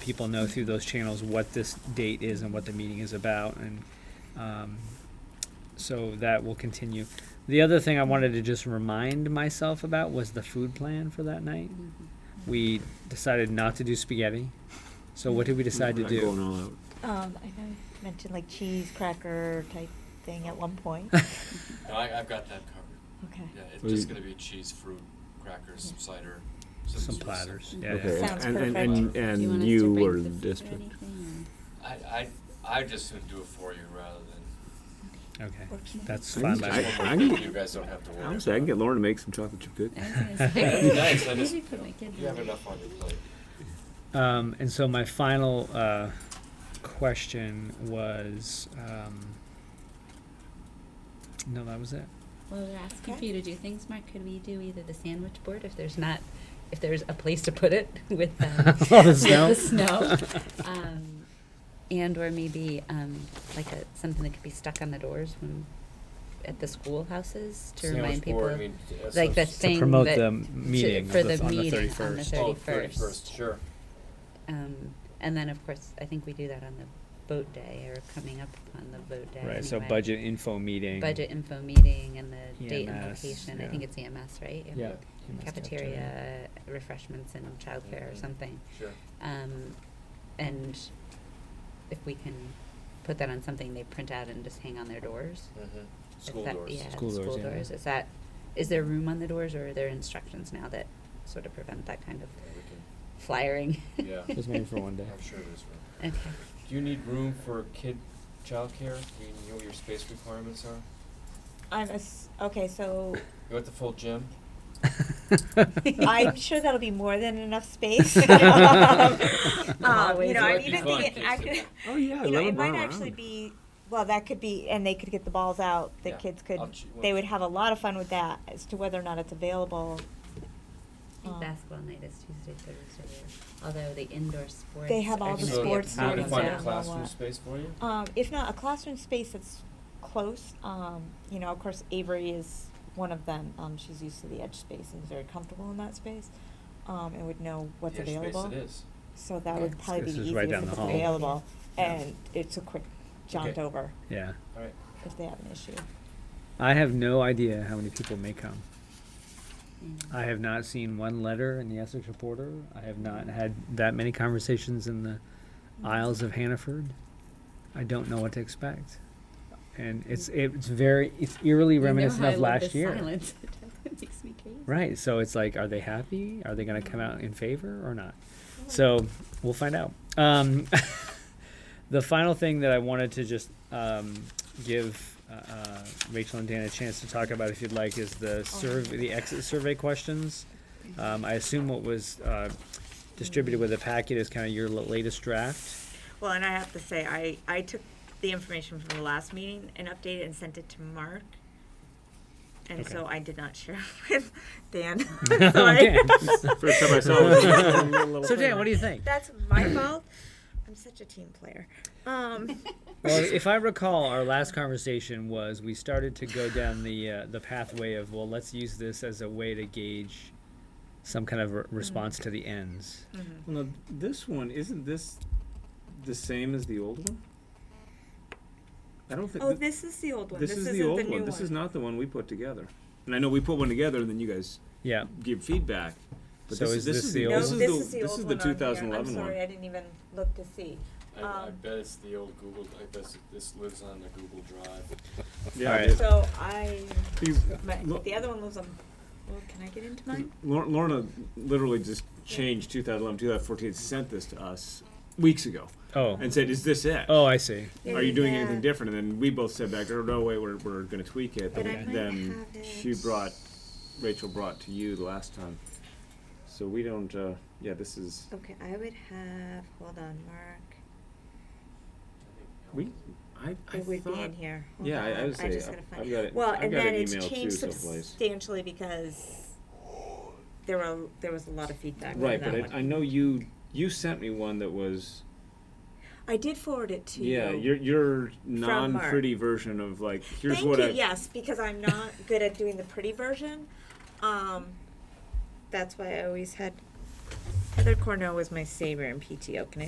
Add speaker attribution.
Speaker 1: people know through those channels what this date is and what the meeting is about, and um, so that will continue. The other thing I wanted to just remind myself about was the food plan for that night. We decided not to do spaghetti. So what did we decide to
Speaker 2: We're not Going
Speaker 1: do?
Speaker 2: all out.
Speaker 3: Um, I know you mentioned like cheese cracker type thing at one point.
Speaker 4: No, I, I've got that covered.
Speaker 3: Okay.
Speaker 4: Yeah, it's
Speaker 2: Well,
Speaker 4: just
Speaker 2: you-
Speaker 4: gonna be cheese, fruit, crackers, some cider.
Speaker 1: Some
Speaker 4: sort of
Speaker 1: platters.
Speaker 4: simple-
Speaker 1: Yeah, yeah.
Speaker 2: Okay,
Speaker 3: Sounds
Speaker 2: and, and,
Speaker 3: perfect.
Speaker 2: and,
Speaker 5: Do you want
Speaker 2: and
Speaker 5: us to
Speaker 2: you
Speaker 5: bring
Speaker 2: were
Speaker 5: the
Speaker 2: the
Speaker 5: food or
Speaker 2: district.
Speaker 5: anything,
Speaker 4: I, I, I just would do it for you rather than,
Speaker 1: Okay,
Speaker 3: Works for me.
Speaker 1: that's
Speaker 2: I
Speaker 1: fine.
Speaker 2: just-
Speaker 1: by
Speaker 2: I-
Speaker 1: me.
Speaker 4: just
Speaker 2: I
Speaker 4: one more
Speaker 2: can-
Speaker 4: thing you guys don't have to worry
Speaker 2: Honestly, I can
Speaker 4: about.
Speaker 2: get Lauren to make some chocolate chip cookies.
Speaker 5: or- I
Speaker 4: That'd be nice, I just,
Speaker 5: Maybe
Speaker 4: you
Speaker 5: put my kid
Speaker 4: you have
Speaker 5: down.
Speaker 4: enough on your plate.
Speaker 1: Um, and so my final uh, question was, um, no, that was it.
Speaker 5: Well, we're asking
Speaker 3: Okay.
Speaker 5: for you to do things, Mark. Could we do either the sandwich board if there's not, if there's a place to put it with um,
Speaker 1: All the
Speaker 5: with
Speaker 1: snow?
Speaker 5: the snow, um, and or maybe um, like a something that could be stuck on the doors when at the schoolhouses to
Speaker 4: Sandwich
Speaker 5: remind people,
Speaker 4: board, I mean, uh, that's
Speaker 5: like the
Speaker 4: what's-
Speaker 5: thing
Speaker 1: to promote
Speaker 5: that
Speaker 1: the meeting
Speaker 5: for
Speaker 1: of
Speaker 5: the
Speaker 1: on the
Speaker 5: meeting on the
Speaker 1: thirty first.
Speaker 4: Oh,
Speaker 5: 31st.
Speaker 4: 31st, sure.
Speaker 5: um, and then of course I think we do that on the boat day or coming up on the boat day.
Speaker 1: Right. So
Speaker 5: anyway.
Speaker 1: budget info meeting.
Speaker 5: budget info meeting and the date and
Speaker 1: EMS,
Speaker 5: location. I
Speaker 1: yeah.
Speaker 5: think it's EMS, right?
Speaker 1: Yeah. EMS
Speaker 5: Cafeteria, refreshments and childcare or
Speaker 4: Mhm.
Speaker 5: something.
Speaker 4: Sure.
Speaker 5: Um, and if we can put that on something they print out and just hang on their doors.
Speaker 4: Mhm.
Speaker 5: Is
Speaker 4: School
Speaker 5: that-
Speaker 4: doors.
Speaker 5: Yeah,
Speaker 1: School
Speaker 5: school
Speaker 1: doors, yeah.
Speaker 5: doors. Is that, is there room on the doors or are there instructions now that sort of prevent that kind of
Speaker 4: Yeah, we
Speaker 5: flyering?
Speaker 4: Yeah.
Speaker 1: Just maybe for one day.
Speaker 4: can- I'm sure there's room.
Speaker 5: Okay.
Speaker 4: Do you need room for kid childcare? Do you know what your space requirements are?
Speaker 3: I'm ass- okay, so
Speaker 4: You want the full gym?
Speaker 3: I'm sure that'll be more than enough space. um, you
Speaker 5: Always
Speaker 3: know, I'm
Speaker 5: working
Speaker 3: even
Speaker 4: on
Speaker 3: thinking, I
Speaker 4: kids.
Speaker 3: could,
Speaker 2: Oh, yeah,
Speaker 3: you know,
Speaker 2: let
Speaker 3: it
Speaker 2: them
Speaker 3: might
Speaker 2: run
Speaker 3: actually
Speaker 2: around.
Speaker 3: be. Well, that could be, and they could get the balls out. The
Speaker 4: Yeah,
Speaker 3: kids could,
Speaker 4: I'll ch- well-
Speaker 3: they would have a lot of fun with that. As to whether or not it's available,
Speaker 5: I think
Speaker 3: Um,
Speaker 5: basketball night is Tuesday, Thursday, although the indoor sports.
Speaker 3: They have
Speaker 5: are
Speaker 3: all
Speaker 5: gonna
Speaker 3: the
Speaker 5: be
Speaker 4: So,
Speaker 5: a
Speaker 3: sports
Speaker 4: You want to
Speaker 5: problem.
Speaker 3: things
Speaker 4: find
Speaker 3: I
Speaker 4: a
Speaker 3: don't know
Speaker 4: classroom
Speaker 3: what.
Speaker 4: space for you?
Speaker 3: Um, if not a classroom space that's close, um, you know, of course Avery is one of them. Um, she's used to the edge space and is very comfortable in that space, um, and would know what's
Speaker 4: Yeah, space
Speaker 3: available.
Speaker 4: it is.
Speaker 3: So that
Speaker 4: Yeah.
Speaker 3: would probably be
Speaker 1: This
Speaker 3: the
Speaker 1: is right
Speaker 3: easiest
Speaker 1: down
Speaker 3: if
Speaker 1: the
Speaker 3: it's
Speaker 1: hall.
Speaker 3: available,
Speaker 4: Yeah.
Speaker 3: and it's a quick jaunt
Speaker 4: Okay.
Speaker 3: over
Speaker 1: yeah.
Speaker 4: All right.
Speaker 3: if they have an issue.
Speaker 1: I have no idea how many people may come.
Speaker 5: Mm.
Speaker 1: I have not seen one letter in the Essex Reporter. I have not had that many conversations in the Isles of Hannaford. I don't know what to expect. And it's it's very it's eerily
Speaker 5: You know
Speaker 1: reminiscent
Speaker 5: how I
Speaker 1: of
Speaker 5: love
Speaker 1: last
Speaker 5: this
Speaker 1: year.
Speaker 5: silence. It makes me crazy.
Speaker 1: Right. So it's like, are they happy? Are they going to come out in favor or not? So we'll find out. Um, the final thing that I wanted to just um, give uh, uh, Rachel and Dan a chance to talk about, if you'd like, is the survey, the exit survey questions. Um, I assume what was uh, distributed with the packet is kind of your l- latest draft.
Speaker 3: Well, and I have to say, I, I took the information from the last meeting and updated and sent it to Mark. And
Speaker 1: Okay.
Speaker 3: so I did not share with Dan. Sorry.
Speaker 2: First time I saw it.
Speaker 1: So Dan, what do you think?
Speaker 3: That's my fault. I'm such a team player. Um,
Speaker 1: Well, if I recall, our last conversation was we started to go down the uh, the pathway of well, let's use this as a way to gauge some kind of re- response to the ends.
Speaker 2: Well, now, this one, isn't this the same as the old one? I don't think,
Speaker 3: oh,
Speaker 2: thi-
Speaker 3: this is the old one.
Speaker 2: this is the old one, this is not the one we put together. And I know we put one together and then you guys
Speaker 1: Yeah,
Speaker 2: give feedback, but
Speaker 1: So
Speaker 2: this
Speaker 1: is
Speaker 2: is,
Speaker 1: this
Speaker 2: this is
Speaker 1: the
Speaker 2: the,
Speaker 1: old
Speaker 3: No,
Speaker 1: one?
Speaker 2: this is the, this is the
Speaker 3: old one
Speaker 2: two
Speaker 3: on here.
Speaker 2: thousand eleven
Speaker 3: I'm sorry,
Speaker 2: one.
Speaker 3: I didn't even look to see.
Speaker 4: I, I
Speaker 3: Um,
Speaker 4: bet it's the old Google. I bet it's- this lives on the Google Drive.
Speaker 2: Yeah,
Speaker 1: All
Speaker 2: I
Speaker 1: right.
Speaker 2: did.
Speaker 3: So I,
Speaker 2: These-
Speaker 3: my,
Speaker 2: Look.
Speaker 3: the other one lives on. Well, can I get into mine?
Speaker 2: Lor- Lorna literally just changed 2011, 2014, sent this to us weeks ago
Speaker 1: Oh,
Speaker 2: and said, is this it?
Speaker 1: oh, I see.
Speaker 2: Mm-hmm. Are you doing
Speaker 3: Yeah.
Speaker 2: anything different? And then we both said back, oh, no way, we're, we're going to tweak it.
Speaker 3: But I
Speaker 2: And
Speaker 3: might
Speaker 2: then
Speaker 3: have
Speaker 2: she
Speaker 3: it.
Speaker 2: brought, Rachel brought to you the last time. So we don't, uh, yeah, this is,
Speaker 3: Okay, I would have. Hold on, Mark.
Speaker 2: we, I, I
Speaker 3: It would be
Speaker 2: thought,
Speaker 3: in here. Hold
Speaker 2: yeah, I, I
Speaker 3: on,
Speaker 2: would say,
Speaker 3: just
Speaker 2: I-
Speaker 3: gotta find
Speaker 2: I've got it,
Speaker 3: Well,
Speaker 2: I've
Speaker 3: and
Speaker 2: got
Speaker 3: then
Speaker 2: an
Speaker 3: it's
Speaker 2: email too
Speaker 3: changed
Speaker 2: someplace.
Speaker 3: substantially because there were there was a lot of feedback. on
Speaker 2: Right,
Speaker 3: that
Speaker 2: but
Speaker 3: one.
Speaker 2: I, I know you, you sent me one that was,
Speaker 3: I did forward it to
Speaker 2: yeah,
Speaker 3: you.
Speaker 2: your, your
Speaker 3: Mark.
Speaker 2: non-pretty version of like, here's
Speaker 3: Thank
Speaker 2: what
Speaker 3: you.
Speaker 2: I,
Speaker 3: Yes, because I'm not good at doing the pretty version. Um, that's why I always had Heather Cornell was my savior in PTO. Can I